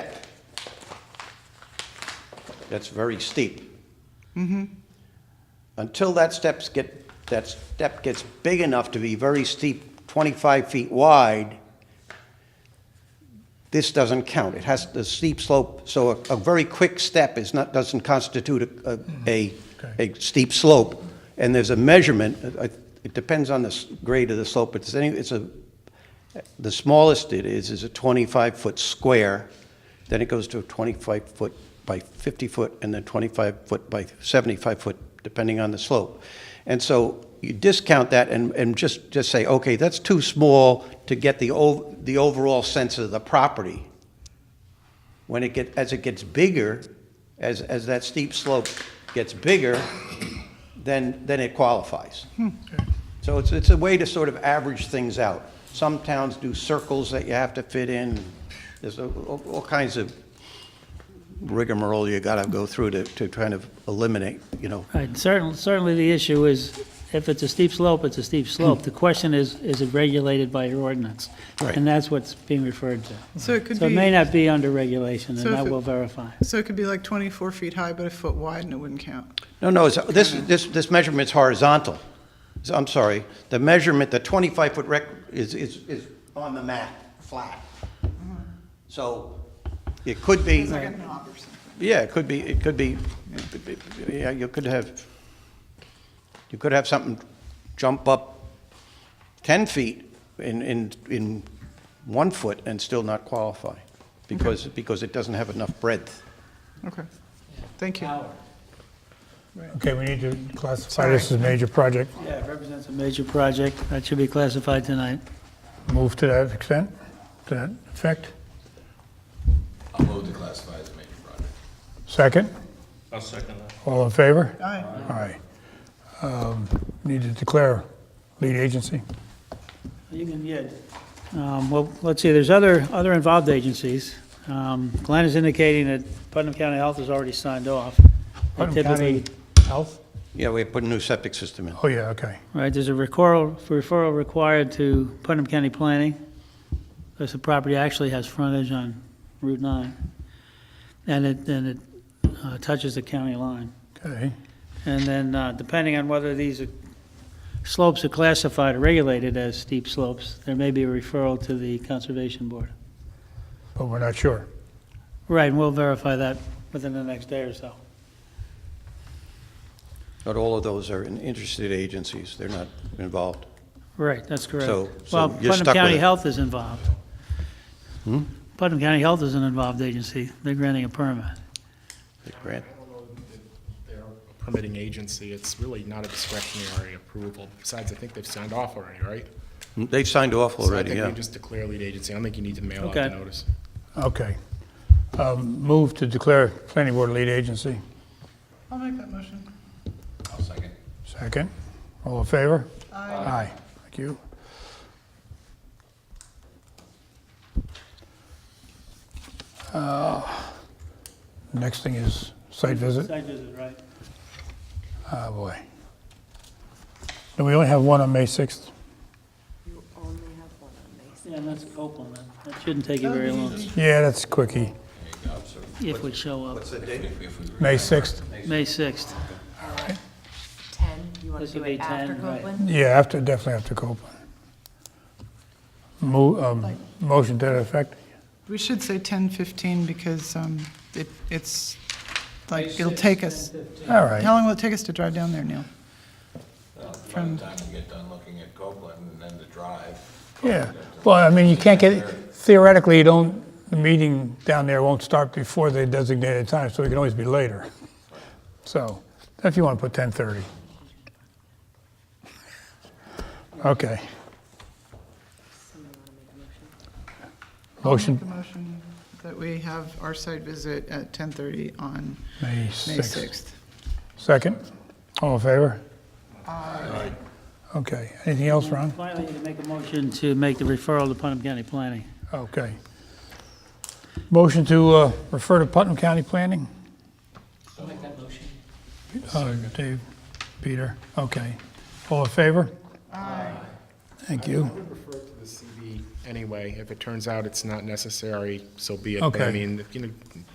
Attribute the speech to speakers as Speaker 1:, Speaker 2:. Speaker 1: that's very steep. Until that steps get, that step gets big enough to be very steep, 25 feet wide, this doesn't count. It has the steep slope, so a, a very quick step is not, doesn't constitute a, a, a steep slope. And there's a measurement, uh, I- it depends on the s- grade of the slope, but it's any, it's a, the smallest it is, is a 25-foot square, then it goes to a 25-foot by 50-foot, and then 25-foot by 75-foot, depending on the slope. And so you discount that and, and just, just say, okay, that's too small to get the, ov- the overall sense of the property. When it get, as it gets bigger, as, as that steep slope gets bigger, then, then it qualifies. So it's, it's a way to sort of average things out. Some towns do circles that you have to fit in. There's a- all all kinds of rigmarole you gotta go through to, to kind of eliminate, you know.
Speaker 2: Right, certainly, certainly the issue is, if it's a steep slope, it's a steep
Speaker 3: Hmm.
Speaker 2: slope. The question is, is it regulated by your ordinance?
Speaker 1: Right.
Speaker 2: And that's what's being referred to.
Speaker 4: So it could
Speaker 2: So it may
Speaker 4: be,
Speaker 2: not be under regulation,
Speaker 4: So
Speaker 2: and
Speaker 4: if
Speaker 2: that
Speaker 4: it-
Speaker 2: will verify.
Speaker 4: so it could be like 24 feet high, but a foot wide, and it wouldn't count.
Speaker 1: No, no, it's- this, this, this measurement's horizontal. So, I'm sorry, the measurement, the 25-foot rec, is, is, is on the map, flat. So it could be.
Speaker 4: It's like a knob or something.
Speaker 1: Yeah, it could be, it could be, yeah, you could have, you could have something jump up 10 feet in, in, in one foot and still not qualify because, because it doesn't have enough breadth.
Speaker 4: Okay, thank you.
Speaker 3: Okay, we need to classify this as a major project.
Speaker 2: Yeah, it represents a major project. That should be classified tonight.
Speaker 3: Move to that extent, to that effect.
Speaker 5: I'll move to classify as a major project.
Speaker 3: Second,
Speaker 6: I'll second that.
Speaker 3: all in favor?
Speaker 4: Aye.
Speaker 3: Aye. Um, Need to declare lead agency.
Speaker 2: You can, yeah. Um, Well, let's see, there's other, other involved agencies. Um, Glenn is indicating that Putnam County Health has already signed off. They
Speaker 3: Putnam
Speaker 2: typically-
Speaker 3: County Health?
Speaker 1: Yeah, we put a new septic system in.
Speaker 3: Oh, yeah, okay.
Speaker 2: Right, there's a referral, referral required to Putnam County Planning, because the property actually has frontage on Route 9, and it, and it uh, touches the county line.
Speaker 3: Okay,
Speaker 2: And then, uh, depending on whether these are- slopes are classified or regulated as steep slopes, there may be a referral to the Conservation Board.
Speaker 3: but we're not sure.
Speaker 2: Right, and we'll verify that within the next day or so.
Speaker 1: Not all of those are in- interested agencies, they're not involved.
Speaker 2: Right, that's correct.
Speaker 1: So- so
Speaker 2: Well,
Speaker 1: you're stuck with
Speaker 2: Putnam County
Speaker 1: it. Hmm?
Speaker 2: Health is involved. Putnam County Health is an involved agency. They're granting a permit.
Speaker 1: They grant-
Speaker 7: They're a permitting agency, it's really not a discretionary approval. Besides, I think they've signed off already, right?
Speaker 1: They've signed off already,
Speaker 7: So I think
Speaker 1: yeah.
Speaker 7: we just declare lead agency, I don't think you need to mail out the
Speaker 2: Okay.
Speaker 7: notice.
Speaker 3: Okay. Um, Move to declare planning board lead agency.
Speaker 4: I'll make that motion.
Speaker 5: I'll second.
Speaker 3: Second, all in favor? Aye. Aye, thank you. Uh, Next thing is site visit.
Speaker 2: Site visit, right.
Speaker 3: Oh, boy. Do we only have one on May 6th?
Speaker 8: You only have one on these.
Speaker 2: Yeah, and that's Copeland. That- That shouldn't take you very long
Speaker 3: Yeah, that's quickie.
Speaker 2: if we show up.
Speaker 3: May 6th?
Speaker 2: May 6th.
Speaker 8: Ten, you want
Speaker 2: This
Speaker 8: to do
Speaker 2: would be
Speaker 8: it after
Speaker 2: 10, right.
Speaker 8: Copeland?
Speaker 3: Yeah, after, definitely after Copeland. Mo- um, Motion to that effect?
Speaker 4: We should say 10:15 because um, it, it's, like, it'll take us,
Speaker 3: All
Speaker 4: how
Speaker 3: right,
Speaker 4: long will it take us to drive down there, Neil?
Speaker 5: By the time you get done looking at Copeland and then the drive,
Speaker 3: yeah. Well, I mean, you can't get, theoretically, you don't, the meeting down there won't start before the designated time, so it can always be later. So, if you want to put 10:30. Okay,
Speaker 8: Someone want to make a
Speaker 3: Motion.
Speaker 8: motion?
Speaker 4: I'll make a motion that we have our site visit at 10:30 on
Speaker 3: May
Speaker 4: May
Speaker 3: 6th.
Speaker 4: 6th.
Speaker 3: Second, all in favor? Aye. Okay, anything else, Ron?
Speaker 2: Finally, you can make a motion to make the referral to Putnam County Planning.
Speaker 3: Okay. Motion to uh, refer to Putnam County Planning? I'll make that motion. Dave, Peter, okay. All in favor? Aye. Thank you.
Speaker 7: I'd refer to the CV anyway, if it turns out it's not necessary, so be it. But I
Speaker 3: Okay.
Speaker 7: mean, you know,